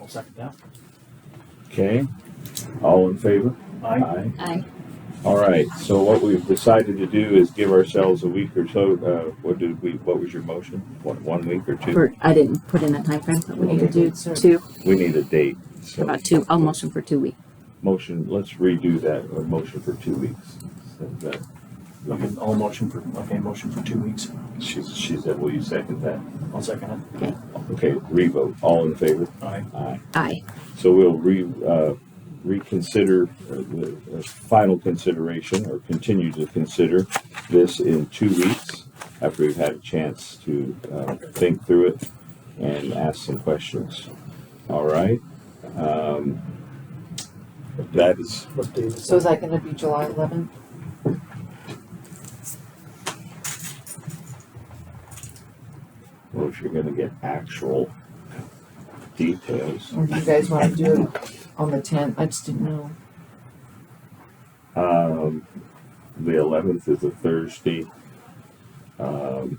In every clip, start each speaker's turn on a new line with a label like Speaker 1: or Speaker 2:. Speaker 1: I'll second that.
Speaker 2: Okay, all in favor?
Speaker 1: Aye.
Speaker 3: Aye.
Speaker 2: All right, so what we've decided to do is give ourselves a week or so, uh, what did we, what was your motion? One, one week or two?
Speaker 3: For, I didn't put in that time frame, but we need to do two,
Speaker 2: We need a date, so,
Speaker 3: about two, I'll motion for two weeks.
Speaker 2: motion, let's redo that, a motion for two weeks. uh, So that-
Speaker 1: Okay, I'll motion for, okay, motion for two weeks.
Speaker 2: She, she said, will you second that?
Speaker 1: I'll second it.
Speaker 2: Okay, revote, all in favor?
Speaker 1: Aye.
Speaker 2: Aye.
Speaker 3: Aye.
Speaker 2: So we'll re, uh, reconsider uh, the the final consideration or continue to consider this in two weeks after we've had a chance to uh, think through it and ask some questions. All right? Um, That is,
Speaker 1: What date is
Speaker 4: So is that gonna be July eleventh?
Speaker 2: well, if you're gonna get actual details.
Speaker 4: Or do you guys wanna do it on the tenth? I just didn't know.
Speaker 2: Um, the eleventh is a Thursday. Um,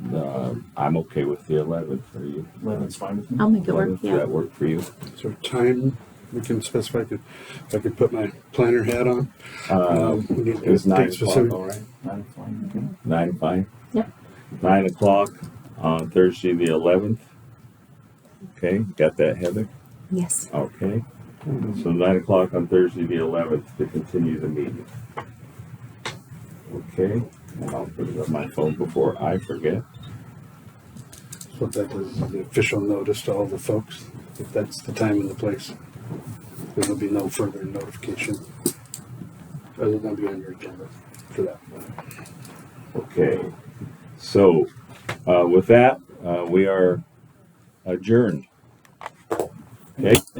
Speaker 2: the- I'm okay with the eleventh. Are you?
Speaker 1: Eleven's fine with me.
Speaker 3: I'll make it work,
Speaker 2: 11th, Does
Speaker 3: yeah.
Speaker 2: that work for you?
Speaker 5: So time, we can specify, if if I could put my planner hat on.
Speaker 2: Um,
Speaker 5: Um, we need
Speaker 2: it was
Speaker 5: to
Speaker 2: nine
Speaker 5: date
Speaker 2: o'clock,
Speaker 5: specific.
Speaker 2: all right?
Speaker 1: Nine, fine with me.
Speaker 2: Nine, fine?
Speaker 3: Yep.
Speaker 2: Nine o'clock on Thursday, the eleventh. Okay, got that, Heather?
Speaker 3: Yes.
Speaker 2: Okay. So nine o'clock on Thursday, the eleventh, to continue the meeting. Okay, and I'll put it on my phone before I forget.
Speaker 5: What that is, the official notice to all the folks, if that's the time and the place. There'll be no further notification. Other than be on your agenda for that.
Speaker 2: Okay, so, uh, with that, uh, we are adjourned. Okay?